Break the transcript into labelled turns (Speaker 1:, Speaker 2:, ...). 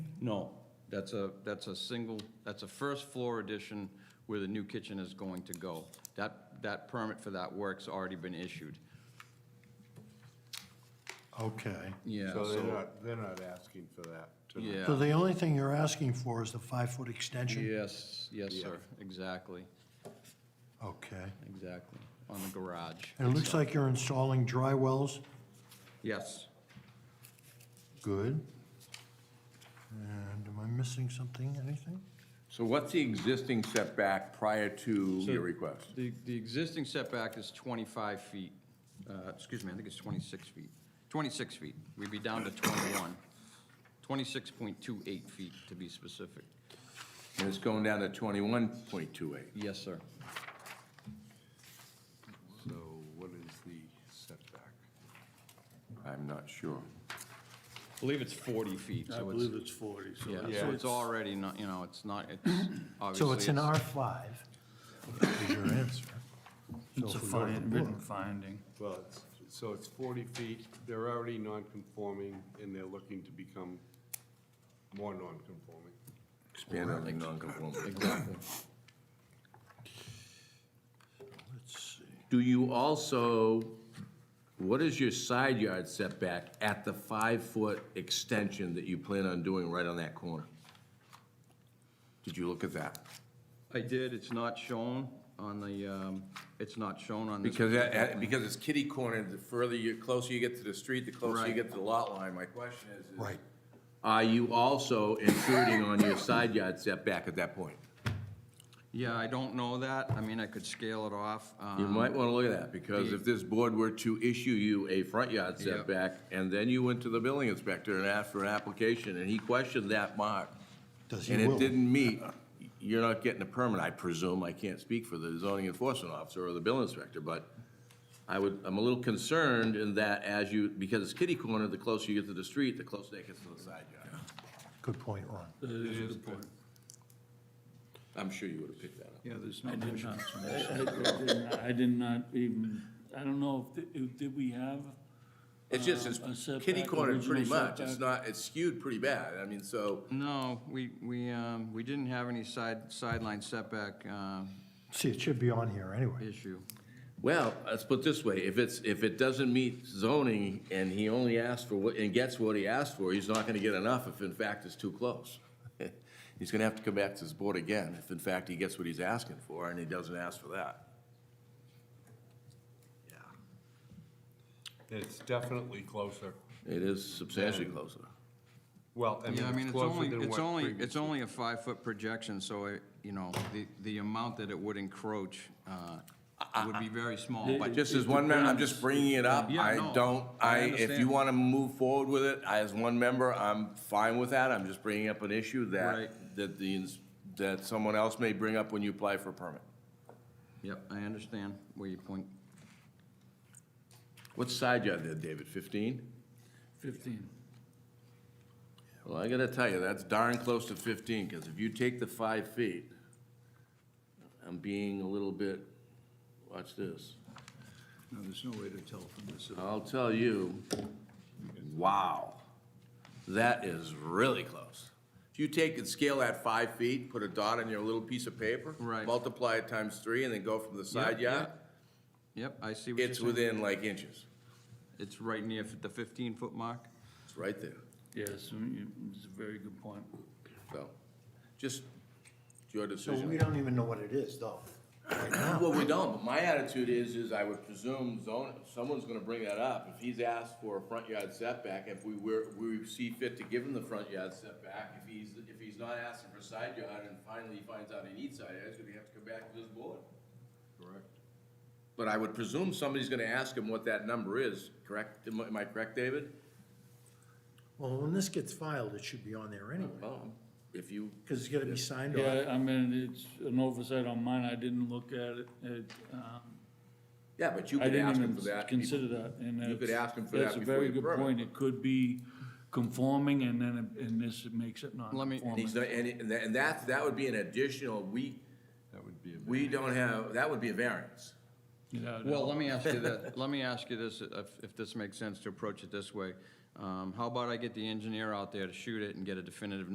Speaker 1: No, that's a, that's a single, that's a first floor addition where the new kitchen is going to go. That, that permit for that work's already been issued.
Speaker 2: Okay.
Speaker 1: Yeah,
Speaker 3: So they're
Speaker 1: so,
Speaker 3: not, they're not asking for that tonight.
Speaker 2: So
Speaker 1: yeah.
Speaker 2: the only thing you're asking for is the five-foot extension?
Speaker 1: Yes, yes, sir, exactly,
Speaker 2: Okay.
Speaker 1: exactly, on the garage.
Speaker 2: And it looks like you're installing dry wells?
Speaker 1: Yes.
Speaker 2: Good. And am I missing something, anything?
Speaker 4: So what's the existing setback prior to your request?
Speaker 1: The, the existing setback is 25 feet, uh, excuse me, I think it's 26 feet. 26 feet, we'd be down to 21. 26.28 feet, to be specific.
Speaker 4: And it's going down to 21.28.
Speaker 1: Yes, sir.
Speaker 3: So what is the setback?
Speaker 4: I'm not sure.
Speaker 1: I believe it's 40 feet,
Speaker 5: I
Speaker 1: so it's,
Speaker 5: believe it's 40, so.
Speaker 1: yeah,
Speaker 3: Yeah,
Speaker 1: so it's
Speaker 3: it's-
Speaker 1: already not, you know, it's not, it's obviously.
Speaker 2: So it's an R5? Is your answer.
Speaker 5: It's a fine, written finding.
Speaker 3: Well, it's, so it's 40 feet, they're already non-conforming, and they're looking to become more non-conforming.
Speaker 4: Expand on the non-conformity.
Speaker 1: Exactly.
Speaker 4: Do you also, what is your side yard setback at the five-foot extension that you plan on doing right on that corner? Did you look at that?
Speaker 1: I did, it's not shown on the, um, it's not shown on this.
Speaker 4: Because, that- that- because it's kitty corner, the further you, closer you get to the street, the closer you get to the lot line. My question is, is
Speaker 2: Right.
Speaker 4: Are you also intruding on your side yard setback at that point?
Speaker 1: Yeah, I don't know that, I mean, I could scale it off.
Speaker 4: You
Speaker 1: um,
Speaker 4: might want to look at that, because if this board were to issue you a front yard
Speaker 1: Yeah.
Speaker 4: setback, and then you went to the building inspector and asked for an application, and he questioned that mark,
Speaker 2: Does he
Speaker 4: and it
Speaker 2: will?
Speaker 4: didn't meet, you're not getting a permit, I presume, I can't speak for the zoning enforcement officer or the building inspector, but I would, I'm a little concerned in that as you, because it's kitty corner, the closer you get to the street, the closer that gets to the side yard.
Speaker 2: Good point, Ron.
Speaker 4: I'm sure you would have picked that up.
Speaker 5: Yeah, there's no mention. I did not even, I don't know, if th- if, did we have,
Speaker 4: It's just,
Speaker 5: Uh, a
Speaker 4: it's
Speaker 5: setback,
Speaker 4: kitty corner pretty
Speaker 5: original
Speaker 4: much, it's not, it's skewed pretty bad, I mean, so.
Speaker 1: No, we, we, um, we didn't have any side, sideline setback, um,
Speaker 2: See, it should be on here anyway.
Speaker 1: issue.
Speaker 4: Well, let's put it this way, if it's, if it doesn't meet zoning and he only asks for what, and gets what he asked for, he's not gonna get enough if in fact it's too close. He's gonna have to come back to this board again if in fact he gets what he's asking for and he doesn't ask for that.
Speaker 3: It's definitely closer.
Speaker 4: It is substantially closer.
Speaker 3: Well, I
Speaker 1: Yeah, I mean,
Speaker 3: mean, it's
Speaker 1: it's
Speaker 3: closer
Speaker 1: only,
Speaker 3: than
Speaker 1: it's
Speaker 3: what
Speaker 1: only, it's
Speaker 3: previously-
Speaker 1: only a five-foot projection, so, it- you know, the, the amount that it would encroach uh, would be very small, but
Speaker 4: Just as one member, I'm just bringing it up,
Speaker 1: Yeah,
Speaker 4: I
Speaker 1: no,
Speaker 4: don't,
Speaker 1: I
Speaker 4: I, if you
Speaker 1: understand.
Speaker 4: wanna move forward with it, I, as one member, I'm fine with that, I'm just bringing up an issue
Speaker 1: Right.
Speaker 4: that, that the, ins- that someone else may bring up when you apply for a permit.
Speaker 1: Yep, I understand where you point.
Speaker 4: What side yard there, David, fifteen?
Speaker 5: 15?
Speaker 4: Well, I gotta tell you, that's darn close to fifteen, because if you take the five feet, I'm being a little bit, watch this.
Speaker 5: No, there's no way to tell from this.
Speaker 4: I'll tell you, wow, that is really close. If you take and scale that five feet, put a dot on your little piece of paper.
Speaker 1: Right.
Speaker 4: Multiply it times three and then go from the side
Speaker 1: yeah.
Speaker 4: yard,
Speaker 1: Yep, I see what you're
Speaker 4: it's
Speaker 1: saying.
Speaker 4: within like inches.
Speaker 1: It's right near the 15-foot mark.
Speaker 4: It's right there.
Speaker 5: Yes, mm, you- it's a very good point.
Speaker 4: So, just your
Speaker 2: So
Speaker 4: decision.
Speaker 2: we don't even know what it is, though.
Speaker 4: Well, we don't, but my attitude is, is I would presume zone, someone's gonna bring that up. If he's asked for a front yard setback, if we were, we see fit to give him the front yard setback, if he's, if he's not asking for side yard and finally he finds out he needs side yard, he's gonna have to come back to this board. Correct. But I would presume somebody's gonna ask him what that number is, correct? Am I- am I correct, David?
Speaker 2: Well, when this gets filed, it should be on there anyway,
Speaker 4: Well, if you,
Speaker 2: because it's gonna be signed off.
Speaker 5: Yeah, I mean, it's an oversight on mine, I didn't look at it, it, um,
Speaker 4: yeah, but you
Speaker 5: I
Speaker 4: could
Speaker 5: didn't
Speaker 4: ask him
Speaker 5: even
Speaker 4: for that.
Speaker 5: consider that, and that's.
Speaker 4: You could ask him for
Speaker 5: that's
Speaker 4: that
Speaker 5: a
Speaker 4: before
Speaker 5: very
Speaker 4: you
Speaker 5: good
Speaker 4: permit.
Speaker 5: point. It could be conforming, and then, it- and this makes it
Speaker 1: Let me-
Speaker 4: And he's
Speaker 5: non-conforming.
Speaker 4: not, and, it- and that- and that, that would be an additional, we,
Speaker 3: That would be a
Speaker 4: we don't have, that would be a variance.
Speaker 5: Yeah,
Speaker 1: Well, let me ask you that, let me ask you this, if, if this makes sense to approach it this way. Um, How about I get the engineer out there to shoot it and get a definitive